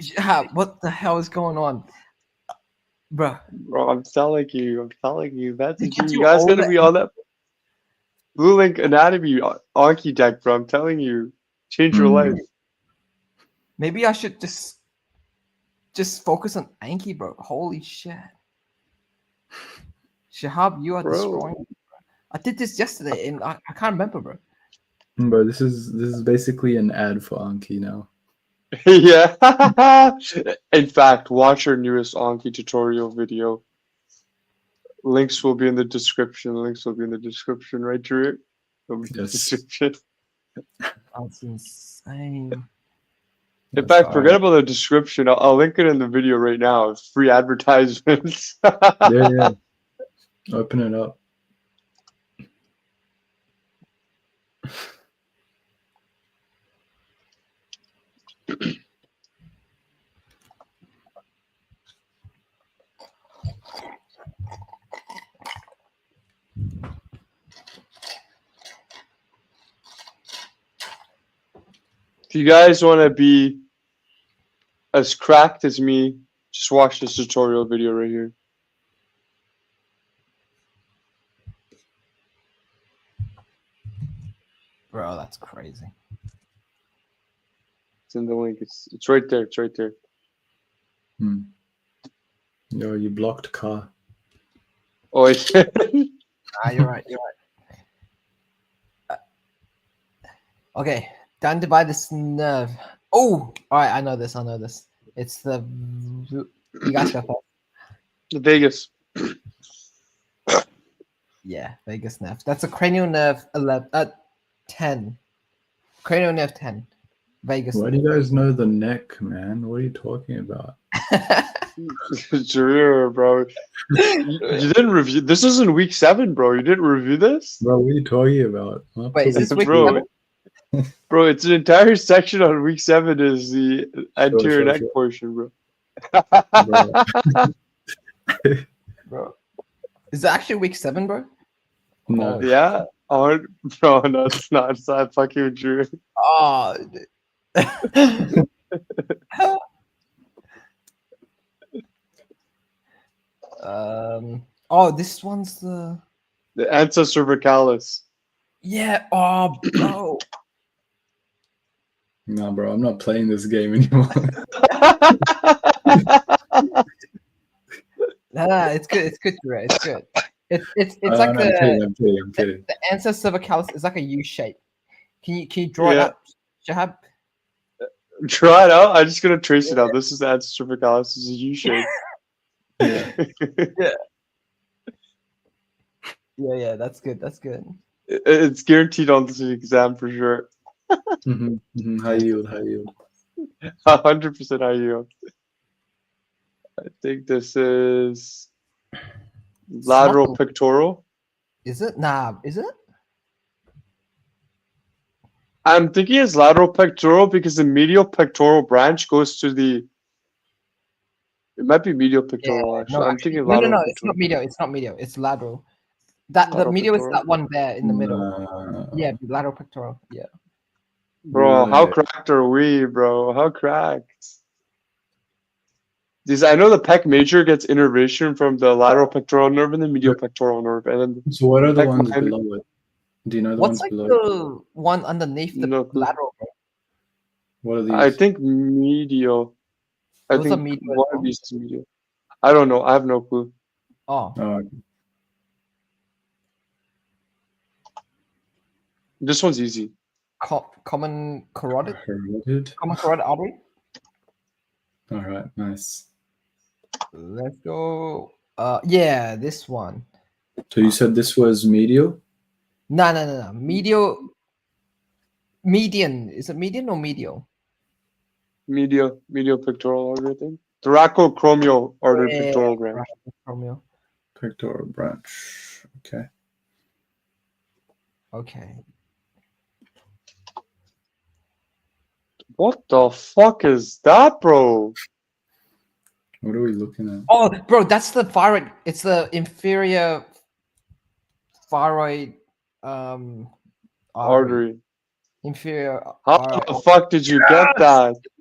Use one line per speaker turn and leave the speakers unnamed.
Yeah, what the hell is going on, Bruh.
Bro, I'm telling you, I'm telling you, that's
They
a
give
dream.
you
you guys
all
gonna
that-
be on that Blue Link Anatomy ar- Archie deck, bro. I'm telling you, change your
Mm.
life.
Maybe I should just just focus on Anki, bro. Holy shit, Shahab, you are
Bro.
destroying. me, bro. I did this yesterday, and I, I can't remember, bro.
Bro, this is this is basically an ad for Anki now.
yeah. in fact, watch our newest Anki tutorial video. Links will be in the description. Links will be in the description, right, Drew? They'll be in the
Yes.
description.
That's insane.
In
That's
fact, forget
alright.
about the description. I'll, I'll link it in the video right now. It's free advertisements.
Yeah, yeah. Open it up.
if you guys want to be as cracked as me, just watch this tutorial video right here.
Bro, that's crazy.
It's in the link. It's it's right there. It's right there.
Hmm. Yo, you blocked car.
Oh, it's
Ah, you're right. You're right. Uh, okay, down to buy this nerve. Oh, all right. I know this. I know this. It's the you guys got that?
Vegas.
Yeah, Vegas nerve. That's a cranial nerve. Eleven. Uh, ten. Cranial nerve ten. Vegas.
Why do you guys know the neck, man? What are you talking about?
Drew, bro. You, you didn't review. This isn't week seven, bro. You didn't review this,
Bro, what are you talking about? What
Wait, is
the-
this week
Bro,
seven?
bro. It's an entire section on week seven is the anterior
sure,
neck
sure.
portion, bro.
Bro,
bro? Is it actually week seven, bro?
no.
Yeah. Oh, bro, no, it's not. It's not fucking Drew.
Oh. dude. um. Oh, this one's the.
The ancestor vocalis.
Yeah. Oh, bro.
No, bro, I'm not playing this game anymore.
Nah, nah, it's good. It's good, Jure. It's good. It's it's it's
Uh,
like
no, I'm kidding,
the
I'm kidding, I'm kidding.
the ancestor vocalis is like a U shape. Can you can you draw it
Yeah.
up, Shahab?
Try it out. I'm just gonna trace it out. This is the ancestor vocalis. This is a U shape.
Yeah.
Yeah, yeah. That's good. That's good.
It- It's guaranteed on this exam for sure.
Mhm, mhm, High yield, high yield.
A hundred percent IU. I think this is lateral
Something.
pectoral.
Is it? Nah. Is it?
I'm thinking it's lateral pectoral because the medial pectoral branch goes to the. It might be medial pectoral. actually, I'm
actually-
thinking
no, no,
lateral.
no. It's
pectoral.
not medial. It's not medial. It's lateral. That the
Lateral
medial is
pectoral?
that one there in the middle.
Nah.
Yeah, lateral pectoral. Yeah.
Bro, how
Yeah.
cracked are we, bro? How cracked? These I know the pec major gets innervation from the lateral pectoral nerve and the medial pectoral nerve, and then
So what are the
Like
ones
my-
below it? Do you know the
What's like
ones below? it?
the one underneath the
No clue.
lateral? bro?
What are these?
I think medial. I
Those are
think
medial as
one
well.
of these is medial. I don't know. I have no clue.
Oh,
Oh,
This one's easy.
co- common carotid,
corroded.
common carotid artery.
All right, nice.
Let's go. Uh, yeah, this one.
So you said this was medial?
No, no, no, no. Medial. Median. Is it median or medial?
Medial, medial pectoral artery. I think thoracochromial artery
Yeah,
pectoral branch.
Romeo.
Pectoral branch. Okay.
Okay.
What the fuck is that, bro?
What are we looking at?
Oh, bro, that's the thyroid. It's the inferior thyroid um
Artery.
Inferior
How
artery.
the fuck did you get that?